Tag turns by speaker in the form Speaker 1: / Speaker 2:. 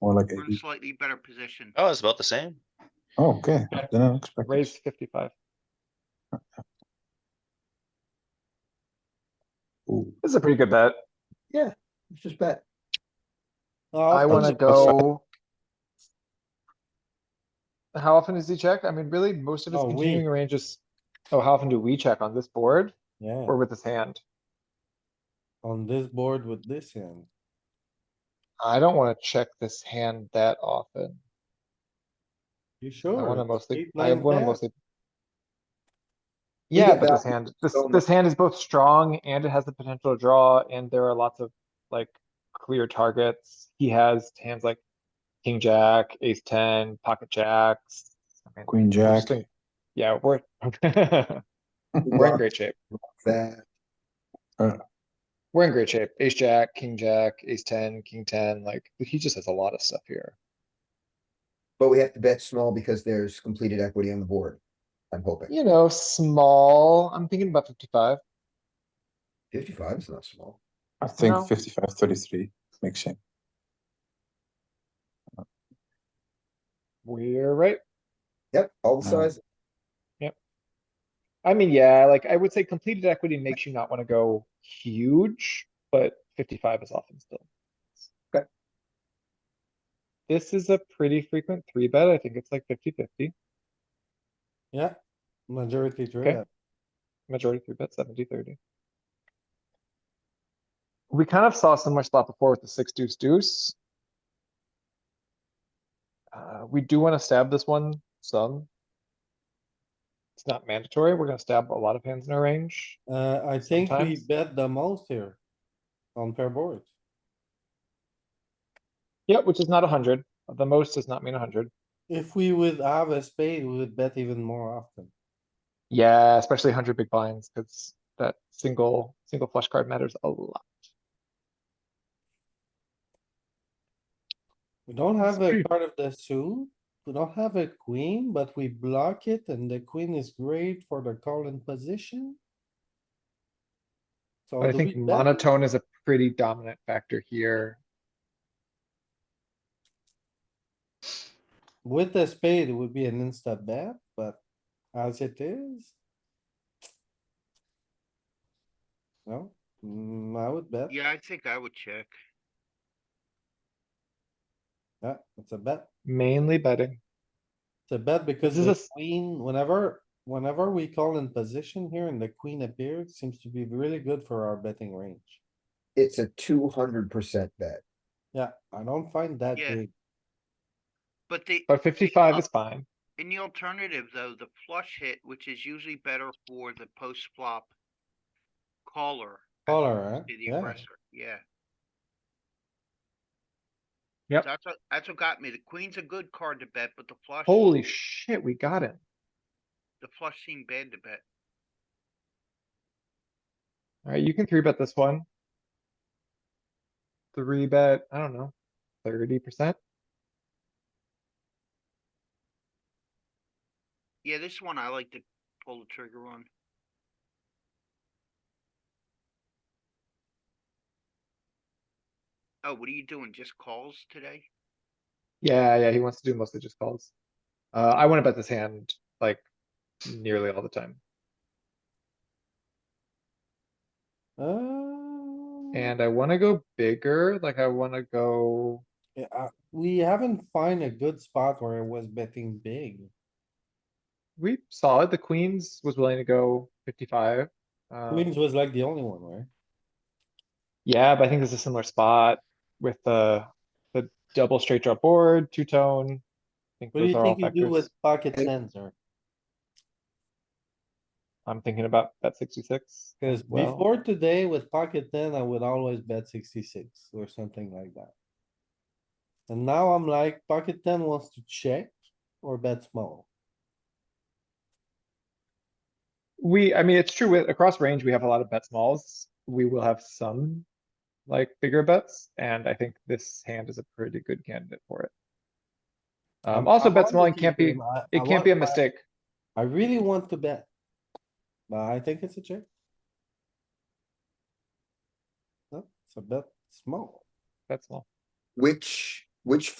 Speaker 1: or like
Speaker 2: Mm-hmm.
Speaker 3: We're in
Speaker 1: eighty.
Speaker 3: slightly better position.
Speaker 4: Oh, it's about the same.
Speaker 1: Oh, okay, then I expected.
Speaker 5: Raise fifty-five.
Speaker 1: Ooh,
Speaker 5: This is a pretty good bet.
Speaker 2: It's just bet.
Speaker 5: I
Speaker 2: Oh,
Speaker 5: wanna
Speaker 1: that's-
Speaker 5: go. How often does he check? I mean, really, most of his
Speaker 2: Oh, we.
Speaker 5: continuing ranges. Oh, how often do we check on this board
Speaker 2: yeah,
Speaker 5: or with his hand?
Speaker 2: on this board with this hand.
Speaker 5: I don't wanna check this hand that often.
Speaker 2: You
Speaker 5: I
Speaker 2: sure?
Speaker 5: wanna mostly,
Speaker 2: Eight
Speaker 5: I
Speaker 2: nine
Speaker 5: wanna
Speaker 2: bet?
Speaker 5: mostly.
Speaker 2: We
Speaker 5: Yeah,
Speaker 2: get
Speaker 5: but this
Speaker 2: that.
Speaker 5: hand, this,
Speaker 2: So much.
Speaker 5: this hand is both strong and it has the potential to draw and there are lots of like clear targets. He has hands like king, jack, ace ten, pocket jacks. I mean,
Speaker 1: Queen
Speaker 5: we're
Speaker 1: jack.
Speaker 5: just doing- Yeah, we're, we're in great shape.
Speaker 2: That.
Speaker 5: We're in great shape. Ace, jack, king, jack, ace ten, king ten, like he just has a lot of stuff here.
Speaker 6: But we have to bet small because there's completed equity on the board. I'm hoping.
Speaker 5: You know, small, I'm thinking about fifty-five.
Speaker 6: Fifty-five is not small.
Speaker 1: I think
Speaker 5: No.
Speaker 1: 55, 33 makes sense.
Speaker 5: We're right.
Speaker 6: Yep, all the
Speaker 1: Mm.
Speaker 6: size.
Speaker 5: I mean, yeah, like I would say completed equity makes you not wanna go huge, but fifty-five is often still.
Speaker 6: Okay.
Speaker 5: This is a pretty frequent three bet. I think it's like 50-50.
Speaker 2: Yeah, majority three.
Speaker 5: Okay.
Speaker 2: bet.
Speaker 5: majority three bet, 70-30. We kind of saw similar spot before with the six deuce deuce. Uh, we do wanna stab this one some. It's not mandatory. We're gonna stab a lot of hands in our range.
Speaker 2: Uh, I think we
Speaker 5: Sometimes.
Speaker 2: bet the most here on pair board.
Speaker 5: Yeah, which is not a hundred. The most does not mean a hundred.
Speaker 2: If we would have a spade, we would bet even more often.
Speaker 5: Yeah, especially hundred big blinds, cuz that single, single flush card matters a lot.
Speaker 2: We don't
Speaker 5: That's
Speaker 2: have a
Speaker 5: true.
Speaker 2: part of the suit, we don't have a queen, but we block it and the queen is great for the calling position. So
Speaker 5: But I
Speaker 2: do we
Speaker 5: think
Speaker 2: bet?
Speaker 5: monotone is a pretty dominant factor here.
Speaker 2: With the spade, it would be an insta bet, but as it is. No, mm, I would bet,
Speaker 3: Yeah, I think I would check.
Speaker 2: yeah, it's a bet,
Speaker 5: Mainly betting.
Speaker 2: it's a bet because
Speaker 5: This is
Speaker 2: the
Speaker 5: a s-
Speaker 2: queen, whenever, whenever we call in position here and the queen appears, seems to be really good for our betting range.
Speaker 6: It's a two hundred percent bet.
Speaker 2: Yeah, I don't find that
Speaker 3: Yeah.
Speaker 2: big.
Speaker 3: But the,
Speaker 5: But fifty-five is fine.
Speaker 3: in the alternative though, the flush hit, which is usually better for the post flop caller. as
Speaker 2: Caller,
Speaker 3: opposed
Speaker 2: huh?
Speaker 3: to The
Speaker 2: Yeah.
Speaker 3: aggressor, yeah.
Speaker 5: Yep.
Speaker 3: That's what, that's what got me. The queen's a good card to bet, but the flush,
Speaker 5: Holy shit, we got it.
Speaker 3: the flush seemed bad to bet.
Speaker 5: Alright, you can three bet this one. Three bet, I don't know, thirty percent?
Speaker 3: Yeah, this one I like to pull the trigger on. Oh, what are you doing? Just calls today?
Speaker 5: Yeah, yeah, he wants to do mostly just calls. Uh, I wanna bet this hand, like, nearly all the time,
Speaker 2: Uh,
Speaker 5: and I wanna go bigger, like, I wanna go.
Speaker 2: yeah, uh, we haven't find a good spot where it was betting big.
Speaker 5: We saw it, the queens was willing to go fifty-five. um,
Speaker 2: Queens was like the only one, right?
Speaker 5: Yeah, but I think this is a similar spot with the, the double straight draw board, two-tone. I think
Speaker 2: What do
Speaker 5: those
Speaker 2: you
Speaker 5: are all
Speaker 2: think you do
Speaker 5: factors.
Speaker 2: with pocket tens or?
Speaker 5: I'm thinking about bet sixty-six.
Speaker 2: Cause
Speaker 5: as well.
Speaker 2: before today with pocket ten, I would always bet sixty-six or something like that. And now I'm like, pocket ten wants to check or bet small.
Speaker 5: We, I mean, it's true with across range, we have a lot of bet smalls. We will have some like bigger bets, and I think this hand is a pretty good candidate for it. Um,
Speaker 2: I'm-
Speaker 5: also
Speaker 2: I'm on
Speaker 5: bet
Speaker 2: the
Speaker 5: smalling
Speaker 2: team,
Speaker 5: can't be,
Speaker 2: I- I
Speaker 5: it can't be a
Speaker 2: want- I-
Speaker 5: mistake.
Speaker 2: I really want to bet. But I think it's a check. No, it's a bet small.
Speaker 5: Bet small.
Speaker 6: Which Which